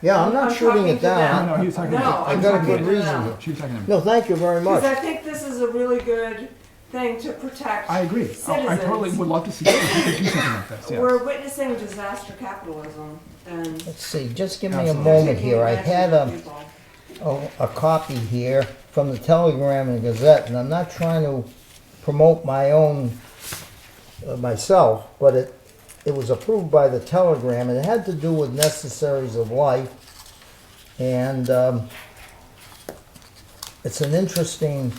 Yeah, I'm not I'm shooting talking it to them. down. No, no, he's talking No, about. I'm I got a talking good to reason. them. here. She was talking about. No, thank you very Because I much. think this is a really good thing to protect. I agree. Oh, I I totally citizens. would love to see, if we could do something like this, yes. We're witnessing disaster capitalism and. Let's see, just give me a Absolutely. moment here. I had um, them. a, a, Oh, a copy here from the Telegram and Gazette, and I'm not trying to promote my own, uh, myself, but it, it was approved by the Telegram, and it had to do with necessaries of life. And, um, it's an interesting,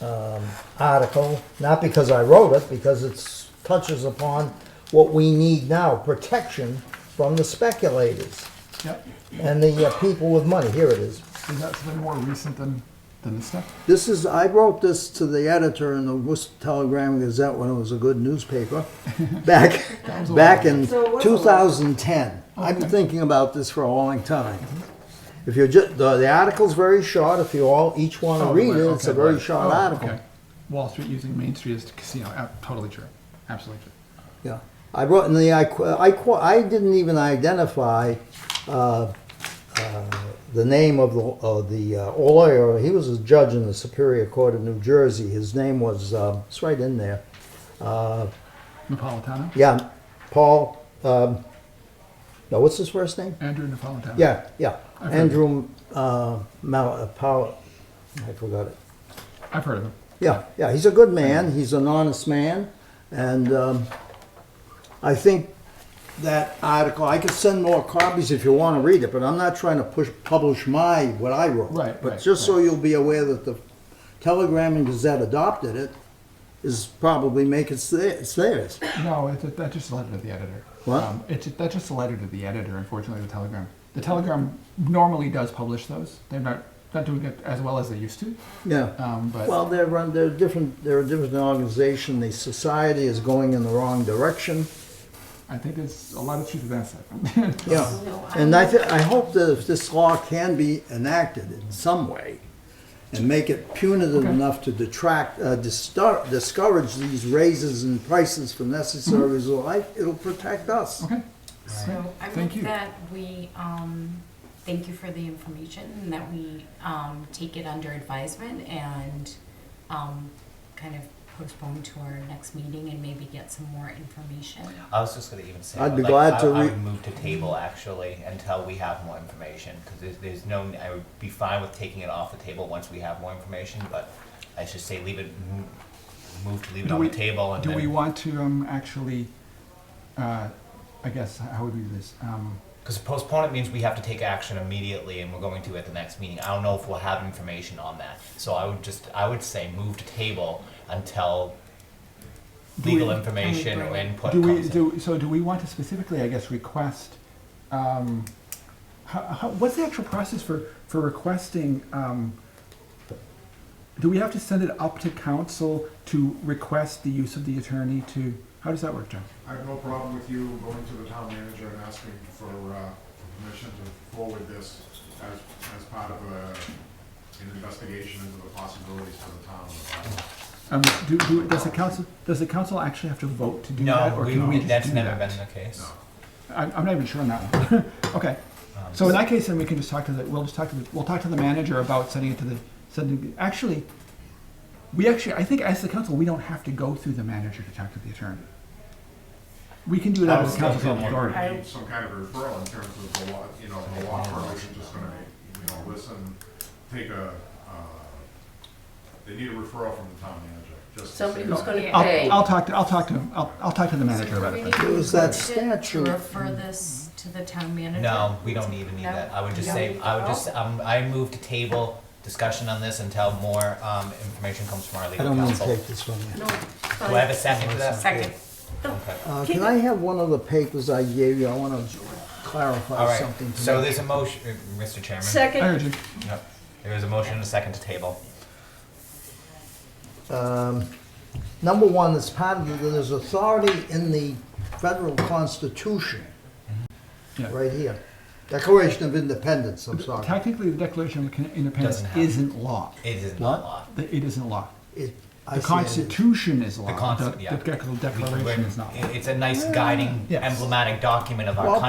um, article, not because I wrote it, because it touches upon what we need now, protection from the speculators Yep. and the uh, people with money. Here it is. Is that something more recent than, than this stuff? This is, I wrote this to the editor in the Worcester Telegram Gazette when it was a good newspaper, back, back in So it was a lot. 2010. I've been thinking about this for a long time. If you just, the, the article's very short, if you all, each want to Oh, read right, it, it's a okay, very right. short Oh, article. okay. Wall Street using Main Street as casino, uh, totally true, absolutely true. Yeah, I wrote in the, I, qu- I, qu- I didn't even identify, uh, uh, the name of the, of the uh, lawyer, he was a judge in the Superior Court of New Jersey, his name was, um, it's right in there, Napolitano, yeah, Paul, um, no, what's his first name? Andrew Napolitano. Yeah, yeah, I've heard of Andrew, uh, Mal, uh, Paul, I forgot it. I've heard of him. Yeah, yeah, he's a good man. He's an honest man, and um, I think that article. I could send more copies if you want to read it, but I'm not trying to push publish my what I wrote. Right, But right, just so you'll be aware that the Telegram and Gazette adopted it is probably make it their- it's theirs. No, it's, that's just a letter to the editor. What? Um, it's, that's just a letter to the editor, unfortunately, the Telegram. The Telegram normally does publish those. They're not, not doing it as well as they used to, Yeah. um, but. Well, they're run, they're different. They're a different organization. The society is going in the wrong direction. I think there's a lot of truth to that stuff. Yeah, and I, thi- I hope that if this law can be enacted in some way and make it punitive Okay. enough to detract, uh, distar- discourage these raises in prices for necessaries of life, it'll protect us. okay. So I Thank you. move that we, um, thank you for the information, and that we, um, take it under advisement and, um, kind of postpone to our next meeting and maybe get some more information. I was just gonna even say. I I'd would be like- glad I- to I re- would move to table actually until we have more information, because there's, there's no, I would be fine with taking it off the table once we have more information, but I should say leave it, mo- move to leave it Do on we- the table and Do we then, want to um, actually, uh, I guess, how would we do this? Um, because postpone it means we have to take action immediately and we're going to at the next meeting. I don't know if we'll have information on that, so I would just, I would say move to table until Do legal we- information or input do we comes in. do so? Do we want to specifically, I guess, request? Um, how, how, what's the actual process for for requesting? Um, do we have to send it up to council to request the use of the attorney to? How does that work, John? I have no problem with you going to the town manager and asking for, uh, for permission to forward this as, as part of a, an investigation into the possibilities for the town. Um, do, do, does the council does the council actually have to vote to do that, No, or we, can we we- just that's do never that? been the case. No. I'm, I'm not even sure on that one. okay. So in that case, then we can just talk to the, we'll just talk to the, we'll talk to the manager about sending it to the, sending, actually, we actually, I think as the council, we don't have to go through the manager to talk to the attorney. We can do it I out of was the council's thinking own more- authority. We need some kind of referral in terms of the law, you know, the law firm isn't just gonna, you know, listen, take a, uh, they need a referral from the town manager, just. to Somebody say who's that. gonna pay. I'll, I'll talk to, I'll talk to him, I'll, I'll talk to the manager about it. then. It was that statute. To refer this to the town manager? No, we don't even need No? that. I would just No? say, I would just, um, I move to table discussion on this until more, um, information comes from our I legal don't want to counsel. take this from you. No, Do I have a fine. second to that? Second. Okay. Uh, can I have one of the papers I gave you? I want to All clarify right, something. to so me. there's a motion, uh, Mr. Chairman. I Second, heard you. Yep. There is a motion and a second to table. um, number one, it's part of, the- there's authority in the federal constitution. Yeah. Right here. Declaration of Independence, I'm sorry. Technically, the Declaration of Independence Doesn't happen. isn't law. It is What? not law. The- It isn't law. It- I see it The as- Constitution is The law. concept, yeah. The We- Declaration we're- is not law. It's a nice guiding Yes. emblematic document of our Ah, Well, country.